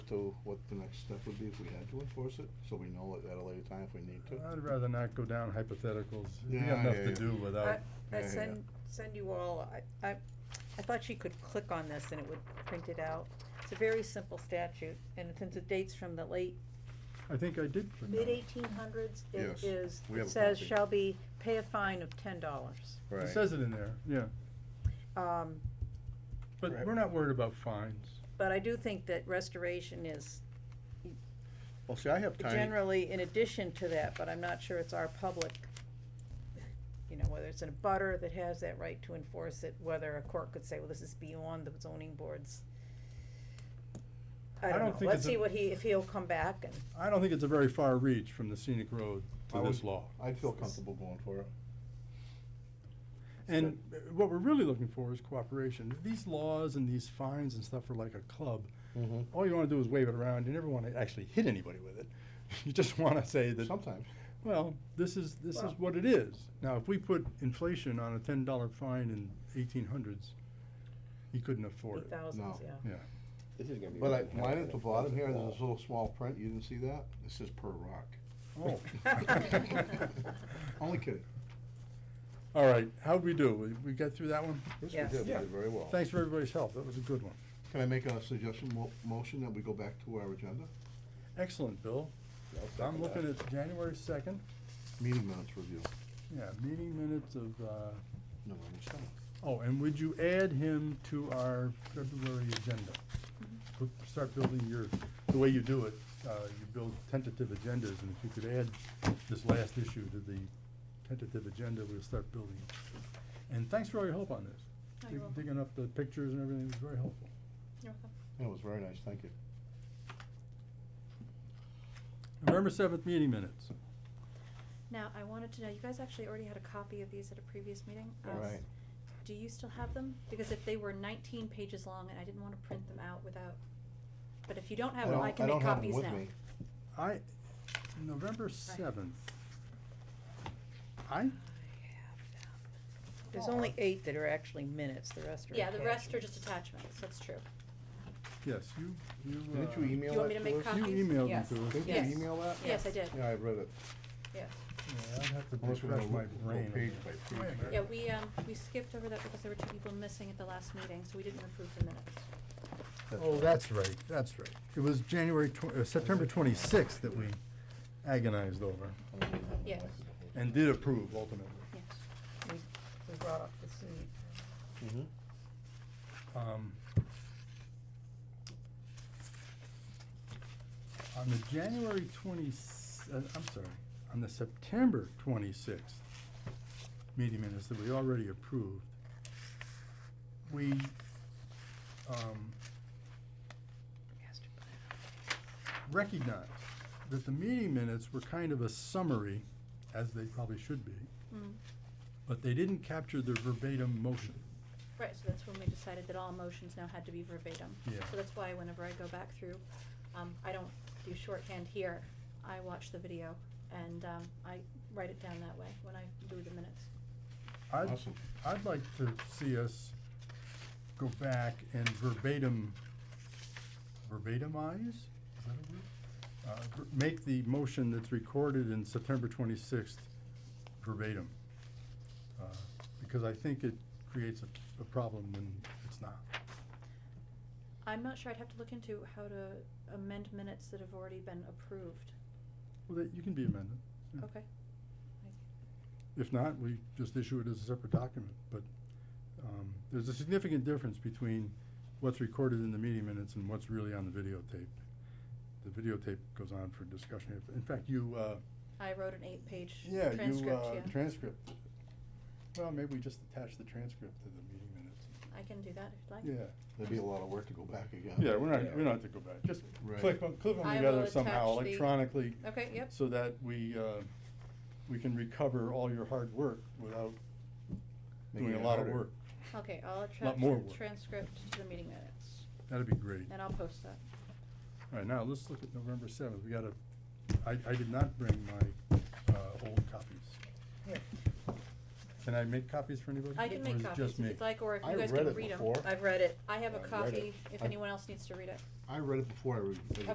to what the next step would be if we had to enforce it, so we know at a later time if we need to? I'd rather not go down hypotheticals. We Yeah, got enough yeah, to yeah. do without, Yeah, yeah, I yeah. send, send you all, I, I, I thought you could click on this and it would print it out. It's a very simple statute, and since it dates from the late, I think I did. put mid down. eighteen hundreds, it Mm-hmm. Yes, is, we have it a says copy. shall be, pay a fine of ten dollars. It says it in there, yeah. Um, But Right. we're not worried about fines. but I do think that restoration is Well, see, I have tiny, generally in addition to that, but I'm not sure it's our public. You know, whether it's in a butter that has that right to enforce it, whether a court could say, well, this is beyond the zoning boards. I I don't don't know, think let's it's a- see what he, if he'll come back and, I don't think it's a very far reach from the scenic road I to would- this law. I'd feel comfortable going for it. And uh, what we're really looking for is cooperation. These laws and these fines and stuff are like a club. Mhm. All you wanna do is wave it around. You never wanna actually hit anybody with it. You just wanna say that, Sometimes, well, this is, this is Well- what it is. Now, if we put inflation on a ten dollar fine in eighteen hundreds, you couldn't afford eight it. thousands, No. yeah. Yeah. This is gonna be. but I, really mine helpful. at the bottom here, there's Well, this little small print, you didn't see that? It says per rock. Oh. Only kidding. All right, how'd we do? We, we got through that one? Yes, Yes. we did, we Yeah. did very well. Thanks for everybody's help. That was a good one. Can I make a suggestion, mo- motion that we go back to our agenda? Excellent, Bill. I'll second I'm looking that. at January second. Meeting minutes review, Yeah, meeting minutes of, uh, November seventh. oh, and would you add him to our February agenda? Put- Start building your, the way you do it, uh, you build tentative agendas, and if you could add this last issue to the tentative agenda, we'll start building. it. And thanks for all your help on this. Oh, Dig- you're welcome. Digging up the pictures and everything was very helpful. It was very nice, thank you. November seventh meeting minutes. Now, I wanted to know, you guys actually already had a copy of these at a previous meeting. Um, Right. Do you still have them? Because if they were nineteen pages long and I didn't wanna print them out without, but if you don't have them, don't- I can don't make have 'em copies with now. me. I, November seventh. I, There's only eight that are actually minutes, the rest are. Yeah, the rest are attachments. just attachments, that's true. yes, you, you, uh. Didn't you email you want that me to make us? copies? You emailed them Yes. to us. Didn't Yes. you email that? Yes, I did. Yeah, I read it. Yeah. Yeah, I'd have to Unless we're refresh gonna my look- go brain. on page that. by Wait a page. minute. Yeah, we, um, we skipped over that because there were two people missing at the last meeting, so we didn't approve the minutes. Oh, that's right, that's right. It was January tw- uh, September twenty-sixth that we agonized over Yes. and did approve ultimately. Yes. We we brought up this need. Mhm. Um, On the January twenty, uh, I'm sorry, on the September twenty-sixth meeting minutes that we already approved, we, um, recognized that the meeting minutes were kind of a summary, as they probably should be, Mm. but they didn't capture the verbatim motion. Right, so that's when we decided that all motions now had to be verbatim. Yeah. So that's why whenever I go back through, um, I don't do shorthand here, I watch the video and, um, I write it down that way when I do the minutes. I'd, Awesome. I'd like to see us go back and verbatim, verbatimise, is that a word? Uh, ver- make the motion that's recorded in September twenty-sixth verbatim. Uh, Because I think it creates a, a problem when it's not. I'm not sure, I'd have to look into how to amend minutes that have already been approved, Well, that, you can be amended. Yeah. okay? If not, we just issue it as a separate document, but, um, there's a significant difference between what's recorded in the meeting minutes and what's really on the videotape. The videotape goes on for discussion. If- In fact, you, uh, I wrote an eight-page yeah, you, transcript, uh, yeah, transcript. Well, maybe we just attach the transcript to the meeting minutes. I can do that if you'd like. Yeah, There'd be a lot of work to go back again. yeah, we're not, we don't have to go back. Just Right. click them, clip them I together will somehow attach the- electronically. Okay, yep, So that we, uh, we can recover all your hard work without Making doing a it lot of harder. work. okay, I'll attach more the work. transcript to the meeting minutes, That'd be great. and I'll post that. All right, now let's look at November seventh. We gotta, I, I did not bring my, uh, old copies. Can I make copies for anybody? I can Or make is it copies just if me? you'd like, or if I you guys read can it read them. before. I've read it. I have a I read it. copy, if I- anyone else needs to read it. I read it before I read it.